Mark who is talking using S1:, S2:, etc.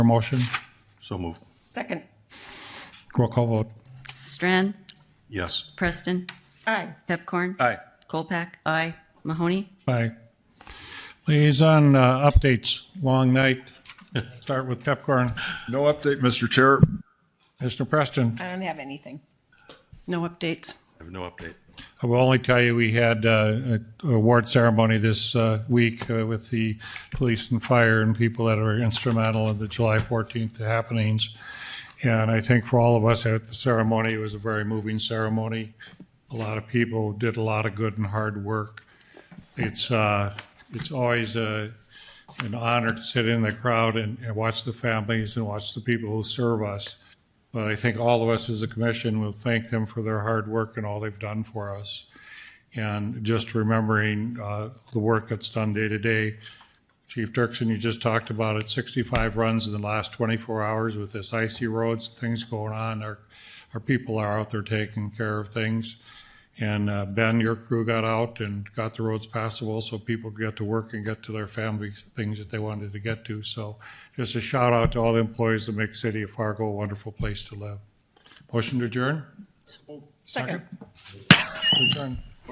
S1: Motion,
S2: So moved.
S3: Second,
S1: roll call vote.
S4: Strand,
S2: Yes.
S4: Preston,
S3: aye.
S4: Pepcorn.
S2: Aye.
S4: Colpack,
S3: Aye.
S4: Mahoney,
S1: Aye. Liaison uh, updates, long night. Start with Pepcorn.
S5: No update, Mr. Chair.
S1: Mr. Preston,
S3: I don't have anything.
S6: No updates.
S2: I have no update.
S1: I will only tell you, we had uh, a award ceremony this uh, week uh, with the police and fire and people that are instrumental in the July 14th happenings. And I think for all of us at the ceremony, it was a very moving ceremony. A lot of people did a lot of good and hard work. It's, uh, it's always a, an honor to sit in the crowd and, and watch the families and watch the people who serve us. But I think all of us as a commission will thank them for their hard work and all they've done for us. And just remembering uh, the work that's done day to day. Chief Dirksen, you just talked about it, 65 runs in the last 24 hours with this icy roads, things going on. Our, our people are out there taking care of things. And uh, Ben, your crew got out and got the roads passable so people could get to work and get to their families, things that they wanted to get to. So just a shout out to all the employees that make City of Fargo a wonderful place to live. Motion to adjourn?
S3: Second.
S1: Adjourn.